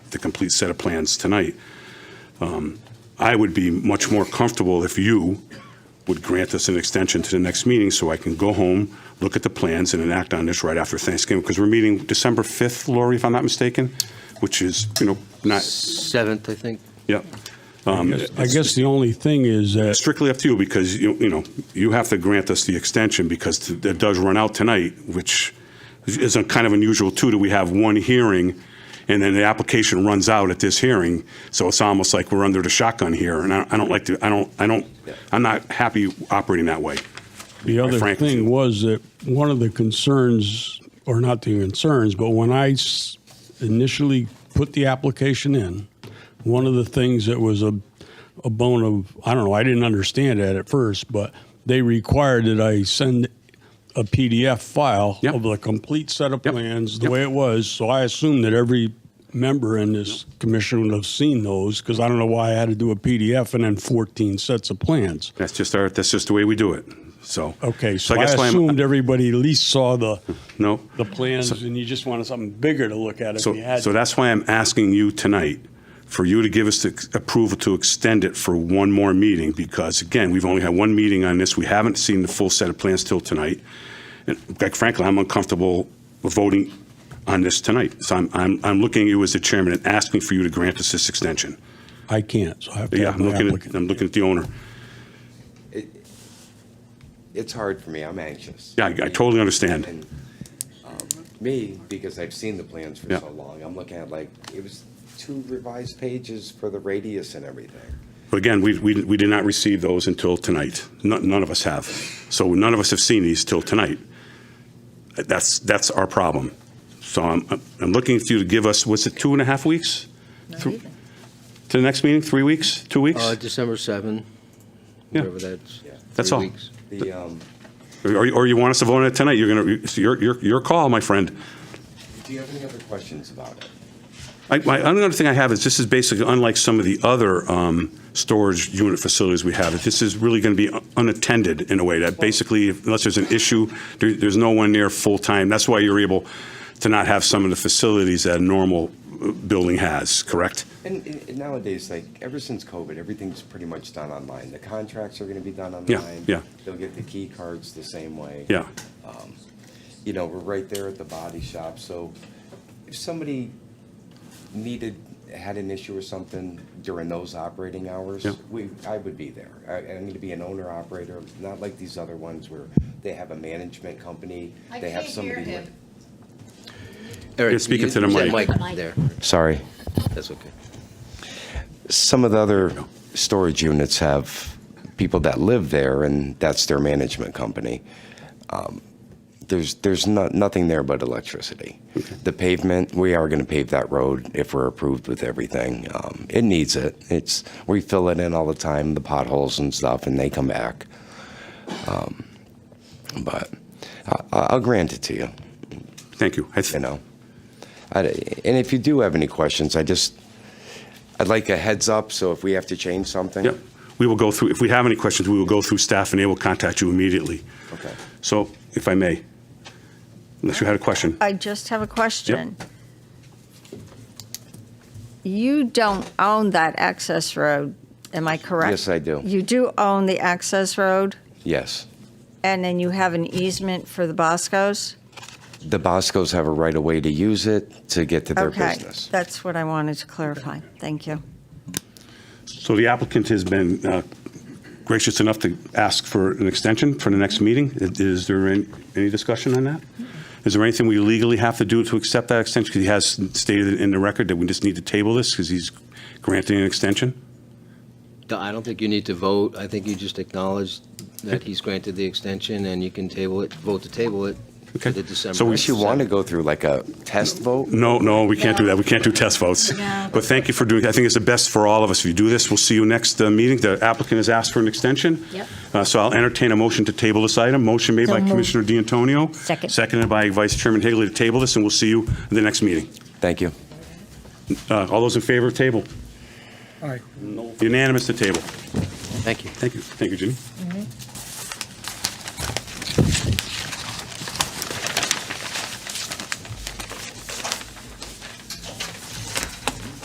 the complete set of plans tonight. Um, I would be much more comfortable if you would grant us an extension to the next meeting so I can go home, look at the plans, and enact on this right after Thanksgiving, because we're meeting December 5th, Lori, if I'm not mistaken, which is, you know, not, Seventh, I think. yeah. Um, I guess the only thing is that strictly up to you because you, you know, you have to grant us the extension because it does run out tonight, which is a kind of unusual too, that we have one hearing and then the application runs out at this hearing. So it's almost like we're under the shotgun here and I, I don't like to, I don't, I don't, I'm not happy operating that way. the other Frank. thing was that one of the concerns, or not the concerns, but when I s- initially put the application in, one of the things that was a, a bone of, I don't know, I didn't understand that at first, but they required that I send a PDF file Yep. of the complete set of Yep. plans, the Yep. way it was. So I assumed that every member in this commission would have seen those, because I don't know why I had to do a PDF and then 14 sets of plans. That's just our, that's just the way we do it. So. Okay, so I guess why I'm- assumed everybody at least saw the, No. the plans, and you just wanted something bigger to look at if So, you had. so that's why I'm asking you tonight, for you to give us the approval to extend it for one more meeting, because again, we've only had one meeting on this, we haven't seen the full set of plans till tonight. And quite frankly, I'm uncomfortable voting on this tonight. So I'm, I'm, I'm looking at you as the chairman and asking for you to grant us this extension. I can't, so I have to Yeah, have I'm my looking at, applicant. I'm looking at the owner. It's hard for me, I'm anxious. Yeah, I- I totally understand. And, um, Me, because I've seen the plans for Yeah. so long, I'm looking at like, it was two revised pages for the radius and everything. But again, we, we, we did not receive those until tonight. None, none of us have. So none of us have seen these till tonight. That's, that's our problem. So I'm, I'm looking for you to give us, was it two and a half weeks? Not even. To the next meeting, three weeks, two Uh, weeks? December seventh, Yeah. whatever that's. Yeah. That's three all. weeks. The, um, Or, you- or you want us to vote on it tonight? You're gonna, it's your, your, your call, my friend. do you have any other questions about it? I, my, another thing I have is this is basically unlike some of the other, um, storage unit facilities we have. This is really gonna be unattended in a way that basically, unless there's an issue, there, there's no one there full-time. That's why you're able to not have some of the facilities that a normal uh, building has, correct? And and nowadays, like, ever since COVID, everything's pretty much done online. The contracts are gonna be done online. Yeah, yeah. They'll get the key cards the same way. Yeah, you know, we're right there at the body shop, so if somebody needed, had an issue or something during those operating hours, Yeah. we, I would be there. I, I'm gonna be an owner operator, not like these other ones where they have a management company, I they have can't hear somebody. him. Eric, You're speaking you- to the you said mic. Mic. there, Sorry. that's okay. Some of the other storage units have people that live there and that's their management company. Um, There's, there's not, nothing there but electricity. The pavement, we are going to pave that road if we're approved with everything. Um, It needs it. It's, we fill it in all the time, the potholes and stuff, and they come back. Um, But I- I'll grant it to you thank you. I you th- know. I- And if you do have any questions, I just, I'd like a heads up, so if we have to change something. Yep, we will go through, if we have any questions, we will go through staff and they will contact you immediately. Okay. So, if I may, unless you had a question. I just have a question. You don't own that access road, am I correct? Yes, I do. You do own the access road, Yes. and then you have an easement for the Boscos? The Boscos have a right of way to use it to get to their Okay, business. that's what I wanted to clarify. Thank you. So the applicant has been uh, gracious enough to ask for an extension for the next meeting. Is- Is there any any discussion on that? Is there anything we legally have to do to accept that extension? Because he has stated in the record that we just need to table this because he's granting an extension? D- I don't think you need to vote, I think you just acknowledge that he's granted the extension, and you can table it, vote to table it Okay. for the December. So we Unless you want to go through like a test vote, No, no, we can't do that. We can't do test votes. No. But thank you for doing, I think it's the best for all of us. If you do this, we'll see you next uh, meeting. The applicant has asked for an extension. Yep. Uh, So I'll entertain a motion to table this item. Motion made So by moved. Commissioner D'Antonio. Second. Seconded by Vice Chairman Higley to table this, and we'll see you at the next meeting. thank you. Uh, All those in favor of table? Aye. Unanimous to table. Thank you. Thank you. Thank you, Ginny.